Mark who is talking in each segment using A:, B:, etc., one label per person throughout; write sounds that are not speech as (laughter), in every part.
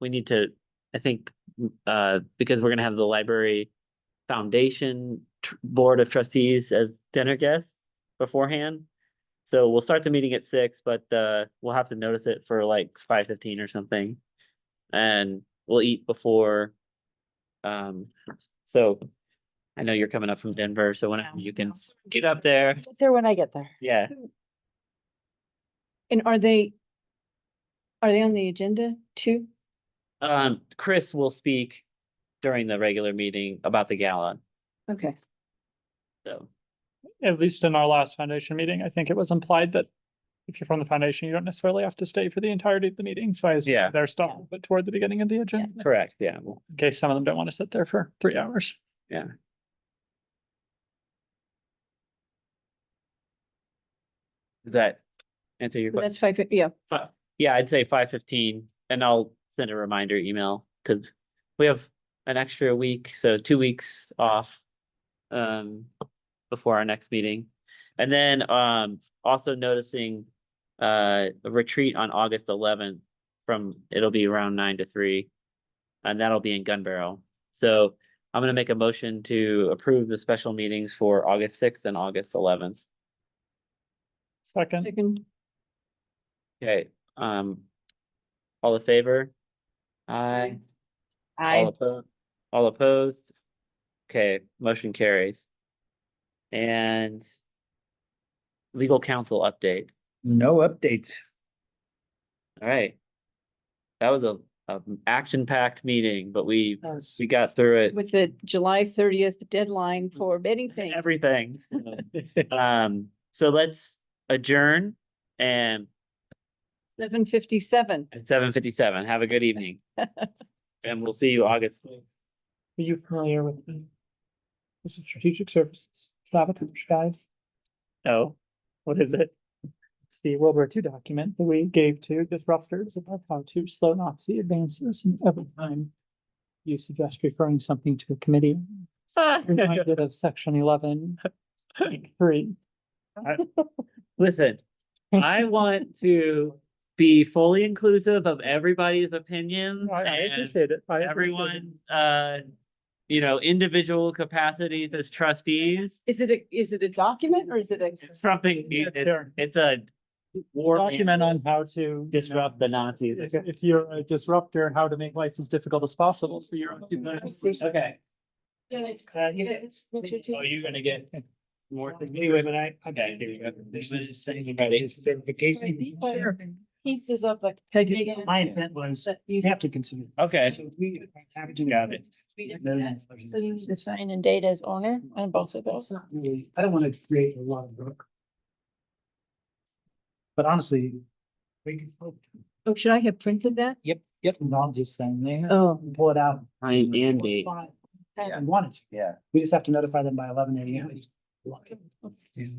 A: we need to, I think, uh, because we're gonna have the library foundation tr- board of trustees as dinner guests beforehand. So we'll start the meeting at six, but, uh, we'll have to notice it for like five fifteen or something. And we'll eat before, um, so I know you're coming up from Denver, so whenever Um, you can get up there,
B: Get There when I get there.
A: yeah.
B: And are they, are they on the agenda too?
A: Um, Chris will speak during the regular meeting about the gala,
B: Okay.
A: so.
C: at least in our last foundation meeting, I think it was implied that if you're from the foundation, you don't necessarily have to stay for the entirety of the meeting. So I
A: Yeah.
C: assume they're stopped, but toward the beginning of the agenda,
A: Correct, yeah, well,
C: in case some of them don't want to sit there for three hours.
A: does that answer your
B: So
A: question?
B: That's five, fif- yeah,
A: Fi- Yeah, I'd say five fifteen, and I'll send a reminder email, cause we have an extra week, so two weeks off. Um, before our next meeting, and then, um, also noticing. Uh, a retreat on August eleventh from, it'll be around nine to three. And that'll be in Gun Barrel, so I'm gonna make a motion to approve the special meetings for August sixth and August eleventh.
C: Second,
B: second,
A: Okay, um, all in favor? Aye. All
D: I,
A: opposed, all opposed? Okay, motion carries. And legal counsel update,
E: No updates.
A: all right. That was a, a action-packed meeting, but we,
B: Yes.
A: we got through it.
B: with the July thirtieth deadline for anything.
E: (laughs)
A: Everything. Um, so let's adjourn and
B: Seven fifty-seven.
A: at seven fifty-seven, have a good evening. And we'll see you August.
C: are you familiar with the this is strategic services sabotage guide?
A: No, what is it?
C: It's the World War II document that we gave to disruptors about how to slow Nazi advances and every time you suggest referring something to a committee, reminded of section (laughs) eleven, point three.
A: Listen, I want to be fully inclusive of everybody's opinions
C: I, I
A: and
C: appreciate it. I appreciate it.
A: everyone, uh, you know, individual capacities as trustees.
B: Is it a, is it a document or is it a?
A: It's something,
C: Yeah,
A: it's,
C: sure.
A: it's a war
C: Document on how to. you
A: disrupt the
C: know,
A: Nazis.
C: If, if you're a disruptor, how to make life as difficult as possible for your. own community.
E: Okay.
B: Richard,
E: you're gonna get.
A: More.
E: Anyway, but I.
A: Okay, here we go. This one is saying about his
E: Verification.
B: Sure. Pieces of like.
E: Peggy, my intent was, you have to consider.
A: Okay,
E: So we have to-
A: Got it.
E: Then-
D: so you need to sign and date as owner on both of
E: Well, it's
D: those.
E: not really, I don't wanna create a lot of work. But honestly, we can.
B: Oh, should I have printed that?
E: Yep, yep. And all this thing there.
B: Oh.
E: and Pull it out.
A: time and date.
E: I wanted to.
A: Yeah.
E: We just have to notify them by eleven AM. It's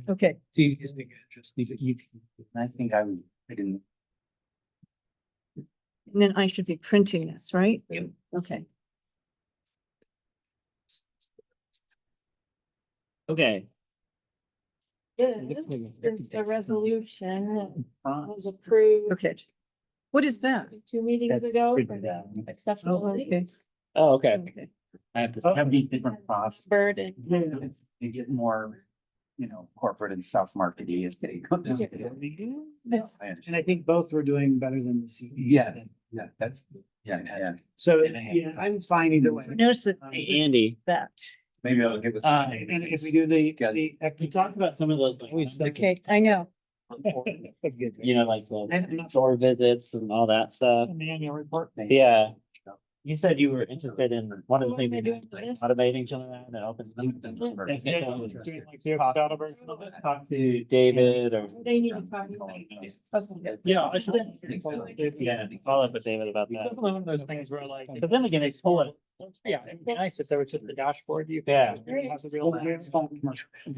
B: Okay.
E: easiest thing, just leave it. You can-
A: I think I, I didn't.
B: And then I should be printing this, right?
A: Yep.
B: Okay.
A: Okay,
E: Looks like a very
D: Since the
E: different-
D: resolution
E: Uh,
D: was approved
B: Okay. What is that?
D: two meetings
E: That's
D: ago for
E: written
D: the
E: down.
D: accessibility
B: Okay.
A: oh, okay.
B: Okay.
A: I have to
E: Oh.
A: have these different props.
D: burden.
E: You get more, you know, corporate and self marketing as they go down. And I think both were doing better than the CDs.
F: Yeah. Yeah, that's, yeah, yeah,
E: So,
F: And a half.
E: yeah, I'm fine either way.
B: Notice that
E: Um,
A: Hey, Andy.
B: that.
F: maybe I'll get with.
A: Uh,
E: And if we do the,
F: Yeah.
E: the.
A: We talked about some of those. like,
E: We still-
B: Okay, I know.
A: You know, like
E: And
A: the
E: I'm not-
A: store visits and all that stuff.
C: In the annual report.
A: Yeah. You said you were interested in one of the
D: What am
A: things,
D: I
A: we
D: doing
A: did,
D: for
A: like,
D: this?
A: automating some of that and open.
C: Yeah, doing like the Ocado version of it.
A: Talk to David or.
D: They need to talk to like- Okay.
C: Yeah, I should.
A: Yeah, follow up with David about that.
C: Definitely one of those things where like.
A: But then again, they pull it.
C: Yeah, it'd be nice if there was just a dashboard. You.
A: Yeah.
C: Has a real.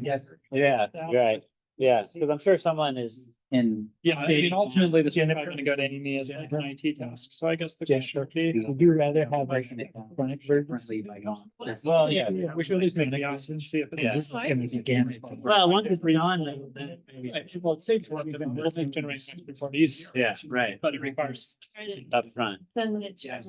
E: Yes.
A: Yeah, you're right. Yeah, because I'm sure someone is.
F: And
C: Yeah, I mean, ultimately,
A: E
C: this is not gonna go to Amy as like an IT task, so I guess the.
E: Yeah,
C: question
E: sure.
C: would be,
F: Yeah.
C: Would you rather have like
F: Breaking it down.
C: chronic versions?
F: currently like on.
A: Well, yeah.
C: We should at least make the option, see if.
A: Yeah.
C: it's-
E: And it's again-
A: Well, once it's beyond, then- then maybe.
C: Right, Well, it saves a lot of them, we'll think generating before these,
A: Yeah, right.
C: but it requires
D: Try to
A: Up front.
D: Send it to